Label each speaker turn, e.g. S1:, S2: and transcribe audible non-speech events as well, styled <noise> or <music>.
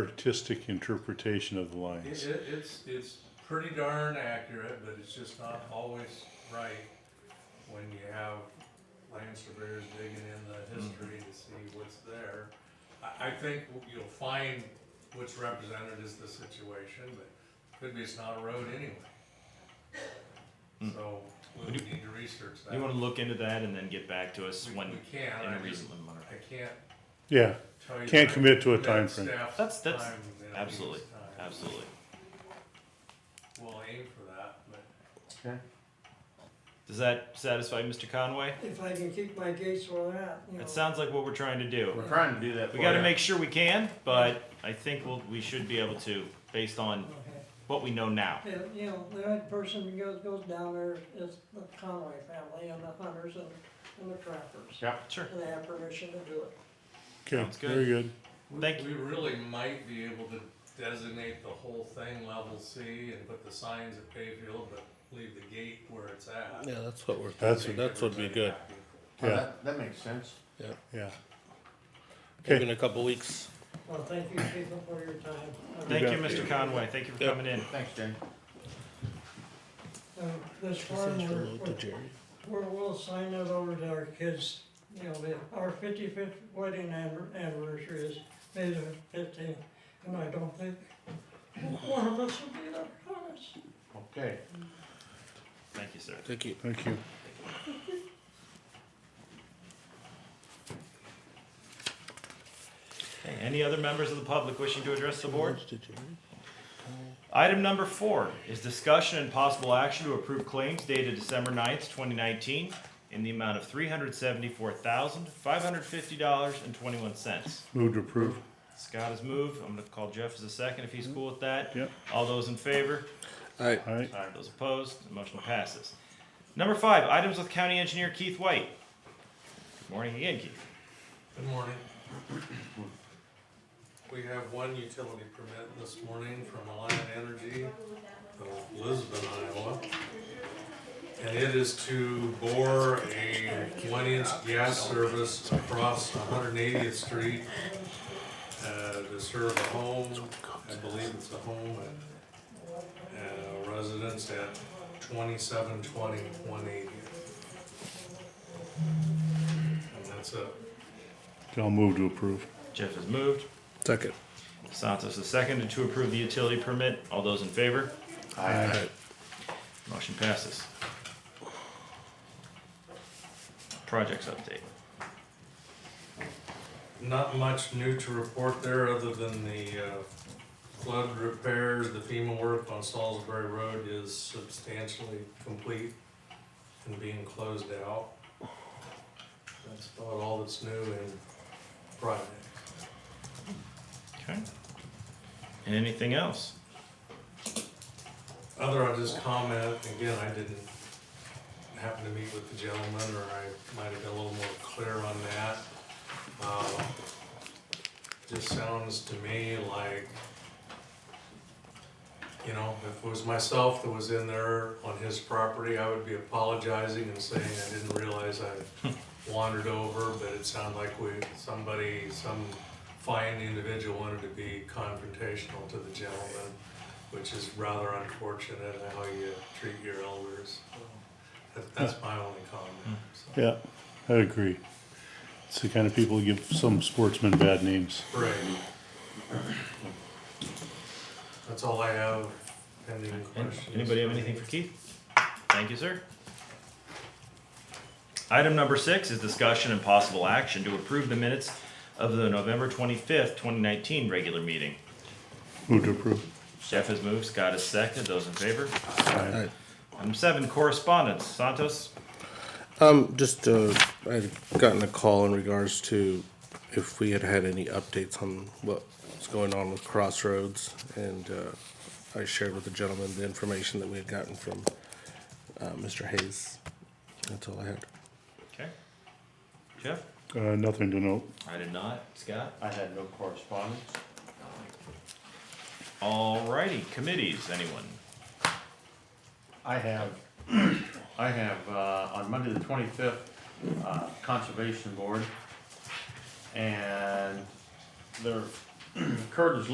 S1: artistic interpretation of the
S2: It,
S1: lines.
S2: it, it's, it's pretty darn accurate, but it's just not always right when you have land surveyors digging in the
S3: Mm-hmm.
S2: history to see what's there. I, I think you'll find what's represented is the situation, but could be it's not a road anyway. So we would need to research that.
S3: Hmm. You want to look into that and then get back to us
S2: We-
S3: when
S2: We can,
S3: in a
S2: I just,
S3: reasonable manner.
S2: I can't
S1: Yeah,
S2: tell you.
S1: Can't
S2: that.
S1: commit to a
S2: That
S1: timeframe.
S2: staff's
S3: That's- that's-
S2: time and its
S3: Absolutely,
S2: time.
S3: absolutely.
S2: Uh, We'll aim for that, but.
S3: Does that satisfy Mr. Conway?
S4: If I can keep my gates where they're at, you know.
S3: That sounds like what we're trying to do.
S5: We're trying to do that.
S3: We
S5: for
S3: got to
S5: you.
S3: make sure we can, but I think we'll, we should be able to, based on
S4: Okay.
S3: what we know now.
S4: Yeah, you know, the only person who goes, goes down there is the Conway family and the hunters and, and the trappers.
S5: Yeah.
S3: Sure.
S4: And they have permission to do it.
S1: okay,
S3: Sounds good.
S1: very good.
S2: We-
S3: Thank
S2: We really might be able to designate the whole thing level C and put the signs at Bayfield, but leave the gate where it's at.
S6: Yeah, that's what we're
S1: That's
S2: Make
S6: thinking. That's what'd be
S2: everybody
S6: good.
S2: happy.
S5: Well,
S1: Yeah.
S5: That, that makes sense.
S1: Yeah.
S6: Maybe
S1: Okay,
S6: in a couple weeks.
S4: Well, thank you people for your time.
S3: Thank you,
S1: bet.
S3: Mr. Conway. Thank you for
S6: Yep.
S3: coming in.
S5: Thanks, Jen.
S4: Uh, This farm,
S6: Send your
S4: we're,
S6: note to Jerry.
S4: we're, we'll sign it over to our kids. You know, we- our fifty-fifth wedding anver- anniversary is May the fifteenth, and I don't think one of us will be there, promise.
S5: Okay.
S3: Thank you, sir.
S6: Thank you.
S1: thank you.
S3: Okay, Any other members of the public wishing to address the board?
S6: Notes to Jerry.
S3: Item number four is discussion and possible action to approve claims dated December 9th, twenty nineteen in the amount of three hundred seventy-four thousand, five hundred fifty dollars and twenty-one cents.
S1: Move to approve.
S3: Scott has moved. I'm gonna call Jeff as a second if he's cool with that.
S1: Yep.
S3: All those in favor?
S6: Alright,
S1: All right,
S3: Those opposed? The motion passes. Number five, items with county engineer Keith White. Good morning again, Keith.
S2: Good morning. We have one utility permit this morning from Alliant Energy of Lisbon, Iowa. And it is to bore a one inch gas service across one hundred and eightieth street uh, to serve a home, I believe it's a home at, uh, residence at twenty-seven twenty one eightieth. And that's it.
S1: I'll move to approve.
S3: Jeff has moved.
S6: second.
S3: Santos is second to approve the utility permit. All those in favor?
S1: Aye.
S3: Motion passes. Projects update.
S2: Not much new to report there, other than the uh, flood repairs, the FEMA work on Salisbury Road is substantially complete and being closed out. That's about all that's new in Friday.
S3: Okay. And anything else?
S2: Other, I'll just comment, again, I didn't happen to meet with the gentleman, or I might have been a little more clear on that. Um, Just sounds to me like, you know, if it was myself that was in there on his property, I would be apologizing and saying I didn't realize I wandered over, but it sounded like we, somebody, some fine individual wanted to be confrontational to the gentleman which is rather unfortunate how you treat your elders. That, that's my only comment. So.
S1: Yeah, I agree. It's the kind of people who give some sportsmen bad names.
S2: Right. That's all I have. Pending questions.
S3: Anybody have anything for Keith? Thank you, sir. Item number six is discussion and possible action to approve the minutes of the November twenty-fifth, twenty nineteen regular meeting.
S1: Move to approve.
S3: Jeff has moved, Scott has seconded, those in favor?
S1: Aye.
S6: Aye.
S3: Item seven, correspondence. Santos?
S6: Um, just, uh, I'd gotten a call in regards to if we had had any updates on what's going on with Crossroads. And, uh, I shared with the gentleman the information that we had gotten from, uh, Mr. Hayes. That's all I had.
S3: Okay. Jeff?
S1: Uh, nothing to note.
S3: I did not. Scott?
S5: I had no correspondence.
S3: Alrighty, committees, anyone?
S5: I have, <clears throat> I have, uh, on Monday the twenty-fifth, uh, <clears throat> Conservation Board. And their, Kurt is